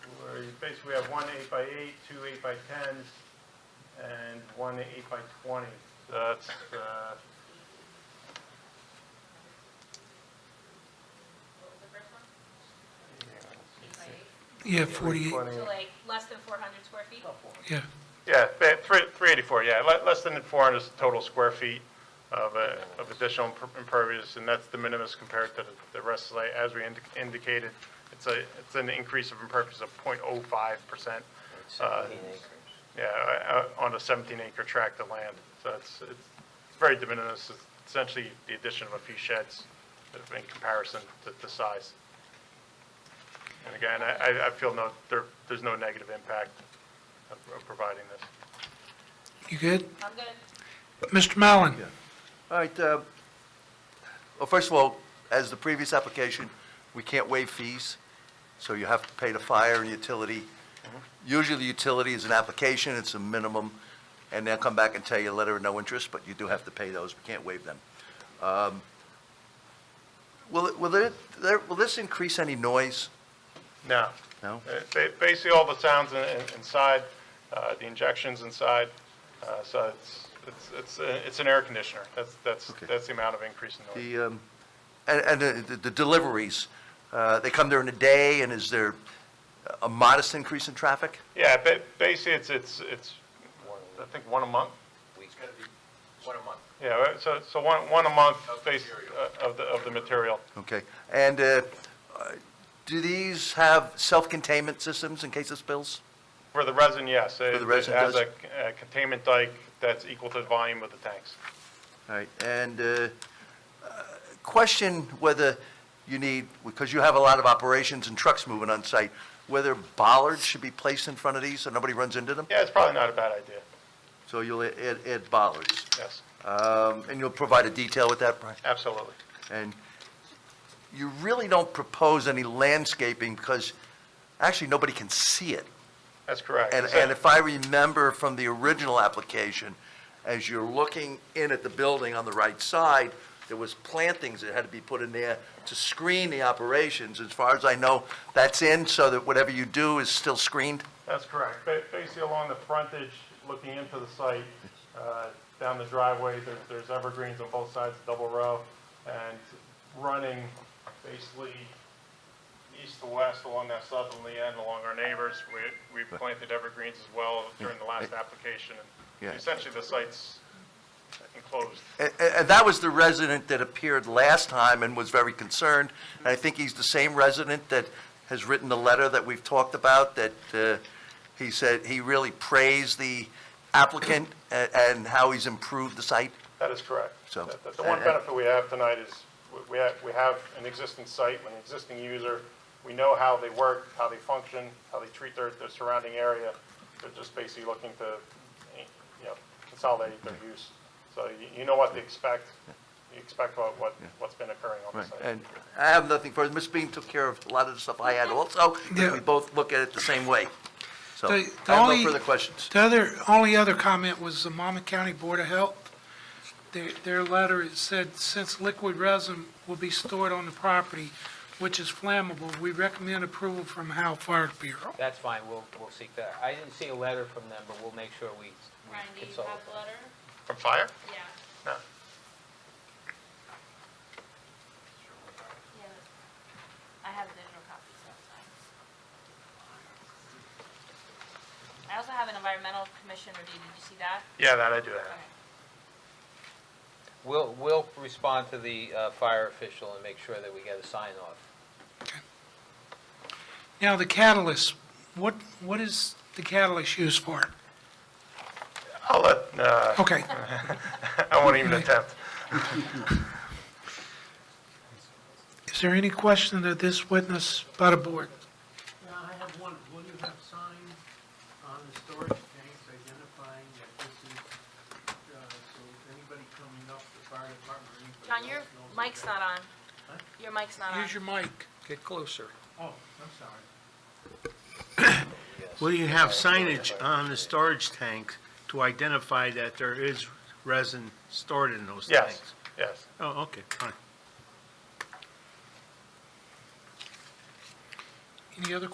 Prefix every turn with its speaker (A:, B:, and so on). A: space, we have one eight by eight, two eight by tens, and one eight by twenty. So That's, uh,
B: Yeah, 48,
A: 20.
C: So like, less than 400 square feet?
B: yeah.
A: Yeah, ba- three- 384, yeah, le- less than 400 total square feet of uh, of additional imper- impervious, and that's de minimis compared to the- the rest of the, as we indi- indicated, it's a, it's an increase of impervious of 0.05%, uh, yeah, uh, uh, on a 17-acre tract of land. So it's, it's very de minimis, It's essentially the addition of a few sheds in comparison to the size. And again, I- I, I feel no, there, there's no negative impact of of providing this.
B: You good?
C: I'm good.
B: Mr. Mallon?
D: All right, uh, well, first of all, as the previous application, we can't waive fees, so you have to pay the fire and utility. Usually, the utility is an application, it's a minimum, and they'll come back and tell you a letter of no interest, but you do have to pay those, we can't waive them. Um, Will, it- will there- there, will this increase any noise?
A: No.
D: No?
A: Uh, ba- Basically, all the sounds in- in- inside, uh, the injections inside, uh, so it's, it's, it's a- it's an air conditioner. That's, that's,
D: Okay.
A: that's the amount of increase in noise.
D: The, um, and, and the- the deliveries, uh, they come during the day, and is there a modest increase in traffic?
A: Yeah, ba- basically, it's, it's, it's, I think one a month?
E: It's gonna be one a month.
A: Yeah, right, so, so one, one a month base uh, of the, of the material.
D: Okay, and uh, uh, do these have self-containment systems in case of spills?
A: For the resin, yes. For
D: the resin,
A: It has
D: does-
A: a a containment dike that's equal to the volume of the tanks.
D: All right, and uh, uh, question whether you need, because you have a lot of operations and trucks moving on site, whether bollards should be placed in front of these so nobody runs into them?
A: Yeah, it's probably not a bad idea,
D: So you'll add add bollards,
A: yes,
D: Um, and you'll provide a detail with that, Brian?
A: absolutely.
D: And you really don't propose any landscaping because actually, nobody can see it.
A: That's correct.
D: And,
A: So-
D: and if I remember from the original application, as you're looking in at the building on the right side, there was plantings that had to be put in there to screen the operations. As far as I know, that's in, so that whatever you do is still screened?
A: That's correct. Ba- Basically, along the frontage, looking into the site, uh, down the driveway, there- there's evergreens on both sides, double row, and running basically east to west along that southerly end, along our neighbors. We we planted evergreens as well during the last application. and
D: Yeah.
A: Essentially, the site's enclosed.
D: And, and that was the resident that appeared last time and was very concerned. And I think he's the same resident that has written the letter that we've talked about, that uh, he said he really praised the applicant a- and how he's improved the site.
A: That is correct.
D: So-
A: That- that's The one benefit we have tonight is we- we have, we have an existing site, an existing user. We know how they work, how they function, how they treat their, their surrounding area. They're just basically looking to, you know, consolidate their use. So you, you know what to expect. You expect what, what, what's been occurring on the site.
D: And I have nothing further. Ms. Bean took care of a lot of the stuff I had also.
B: Yeah.
D: We both look at it the same way. So I
B: The-
D: have
B: the
D: no
B: only-
D: further questions.
B: The other, only other comment was the Monmouth County Board of Health. Their, their letter, it said, since liquid resin will be stored on the property, which is flammable, we recommend approval from Hal Fire Bureau.
E: That's fine, we'll, we'll seek that. I didn't see a letter from them, but we'll make sure we we
C: Ryan, do you
E: consult.
C: have the letter?
A: From fire?
C: Yeah.
A: No.
C: Yeah. I have a digital copy, so it's fine. I also have an environmental commission review. Did you see that?
A: Yeah, that I do have.
C: Okay.
E: We'll, we'll respond to the uh, fire official and make sure that we get a sign off.
B: Now, the catalyst, what, what is the catalyst used for?
A: I'll let, uh,
B: Okay,
A: I won't even attempt.
B: is there any question of this witness by the board?
F: Yeah, I have one. Will you have signs on the storage tanks identifying that this is, uh, so anybody coming up, the fire department, or anybody
C: John, your
F: else knows
C: mic's
F: that-
C: not on. Your mic's not on.
B: Use your mic. Get closer.
F: Oh, I'm sorry.
G: Will you have signage on the storage tank to identify that there is resin stored in those tanks?
A: Yes, yes.
G: Oh, okay, fine.
B: Any other